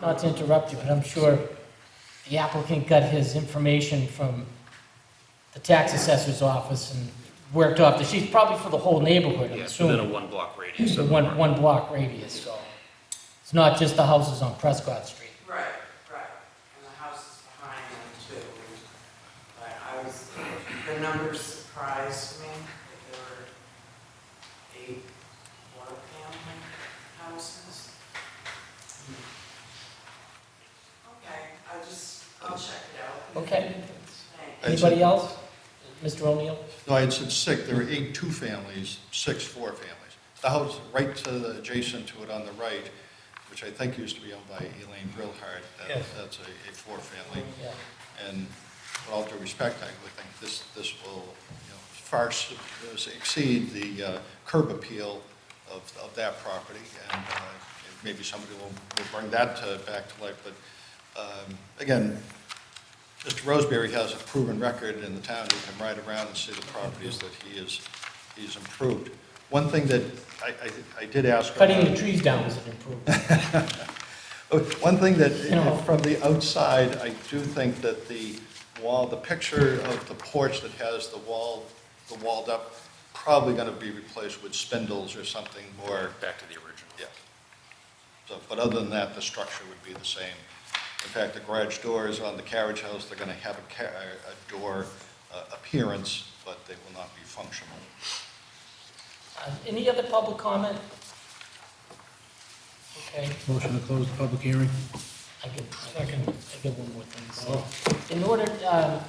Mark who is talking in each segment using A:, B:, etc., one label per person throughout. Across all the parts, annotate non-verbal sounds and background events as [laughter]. A: not to interrupt you, but I'm sure the applicant got his information from the tax assessor's office and worked off the sheets, probably for the whole neighborhood, I'm
B: Yes, within a
A: assuming.
B: one-block radius.
A: The
B: of
A: one,
B: the
A: one block radius, so it's not just the houses on Prescott Street.
C: Right, right, and the house is behind them too. But I was, the numbers surprised me, that there were eight one-family houses. Okay, I just, I'll check it out.
A: Okay.
C: Thank
D: That's
A: Anybody else? Mr. O'Neill?
D: No, I had said six, there were eight two-families, six four-families. The house right to the, adjacent to it on the right, which I think used to be owned by Elaine Brillhart, that,
A: Yes.
D: that's a, a four-family.
A: Yeah.
D: And with all due respect, I would think this, this will, you know, far su- exceed the uh, curb appeal of, of that property. And uh, maybe somebody will, will bring that to, back to life, but, um, again, Mr. Roseberry has a proven record in the town, you can ride around and see the properties that he is, he's improved. One thing that I, I, I did ask.
A: Cutting the trees down is an improvement.
D: Oh, One thing that,
A: You know.
D: from the outside, I do think that the wall, the picture of the porch that has the wall, the walled up, probably gonna be replaced with spindles or something more,
B: Back to the original.
D: yeah. So, but other than that, the structure would be the same. In fact, the garage doors on the carriage house, they're gonna have a ca, a door uh, appearance, but they will not be functional.
A: Uh, Any other public comment? Okay.
E: Motion to close the public hearing.
A: I could, I could, I could one more thing to say. In order, um,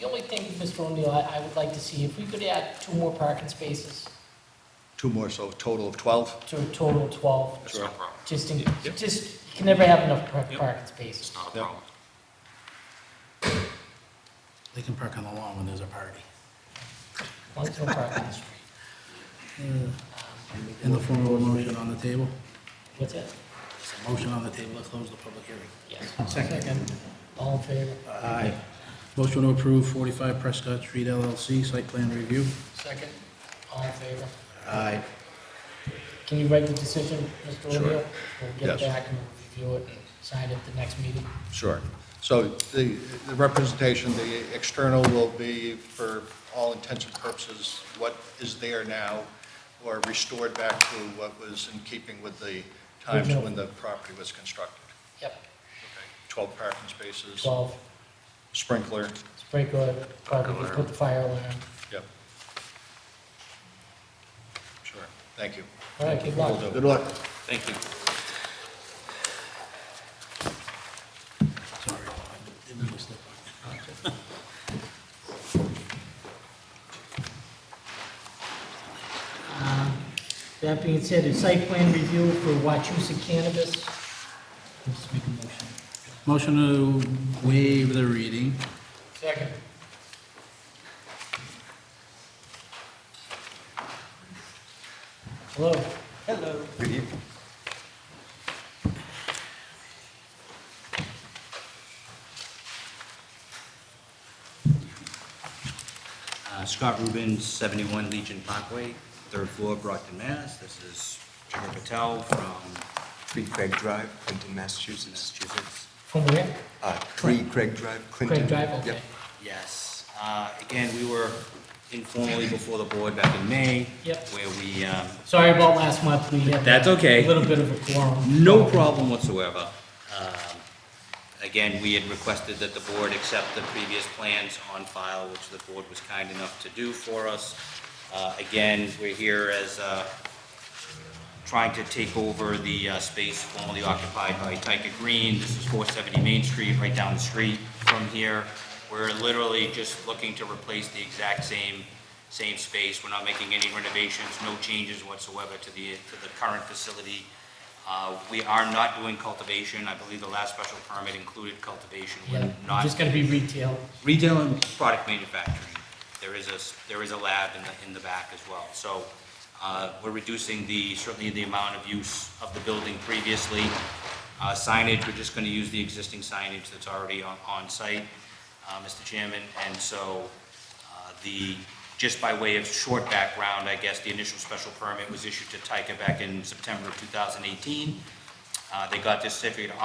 A: the only thing, Mr. O'Neill, I, I would like to see, if we could add two more parking spaces
D: Two more, so a total of 12?
A: to a total of twelve,
B: That's no problem.
A: just in,
B: Yeah.
A: just, you can never have enough par-
B: Yeah.
A: parking spaces.
B: It's not a
D: Yeah.
B: problem.
E: They can park on the lawn when there's a party,
A: One's no parking
B: [laughs]
A: on the street.
E: Uh.
A: Um,
E: in the form of a motion on the table.
A: What's that?
E: It's a motion on the table to close the public hearing.
A: Yes.
E: Second.
A: All in favor?
E: Aye. Motion to approve 45 Prescott Street LLC site plan review.
A: Second. All in favor?
E: Aye.
A: Can you write the decision, Mr.
D: Sure.
A: O'Neill? We'll get
D: Yes.
A: back and review it and sign it at the next meeting.
D: Sure. So the, the representation, the external will be, for all intents and purposes, what is there now, or restored back to what was in keeping with the times when the property was constructed?
A: Yep,
D: Okay. 12 parking spaces,
A: twelve,
D: sprinkler,
A: sprinkler, probably just put the fire alarm.
D: yep. Sure, thank you.
A: All right, good luck.
D: Good luck.
B: Thank you.
E: Sorry. Didn't mean to slip on you.
A: That being said, a site plan review for Wachusett Cannabis. Let's make a motion.
E: Motion to waive the reading.
A: Second. Hello. Hello.
D: Good evening.
F: Uh, Scott Rubin, 71 Legion Parkway, third floor, Brockton, Mass. This is Jigar Patel from
G: Three Craig Drive, Clinton, Massachusetts.
F: Massachusetts.
A: From where?
G: Uh, Three Craig Drive, Clinton.
A: Craig Drive, okay.
G: Yep.
F: Yes, uh, again, we were informally before the board back in May.
A: Yep.
F: Where we, um,
A: Sorry about last month, we had.
F: That's okay.
A: A little bit of a quorum.
F: no problem whatsoever. Um, Again, we had requested that the board accept the previous plans on file, which the board was kind enough to do for us. Uh, Again, we're here as uh, trying to take over the uh, space formerly occupied by Tyka Green. This is 470 Main Street, right down the street from here. We're literally just looking to replace the exact same, same space. We're not making any renovations, no changes whatsoever to the, to the current facility. Uh, We are not doing cultivation. I believe the last special permit included cultivation.
A: Yeah,
F: We're not
A: just gonna be retail.
F: retail and product manufacturing. There is a, s- there is a lab in the, in the back as well. So uh, we're reducing the, certainly the amount of use of the building previously. Uh, Signage, we're just going to use the existing signage that's already on, on site, uh, Mr. Chairman. And so uh, the, just by way of short background, I guess, the initial special permit was issued to Tyka back in September of 2018. Uh, They got this certificate of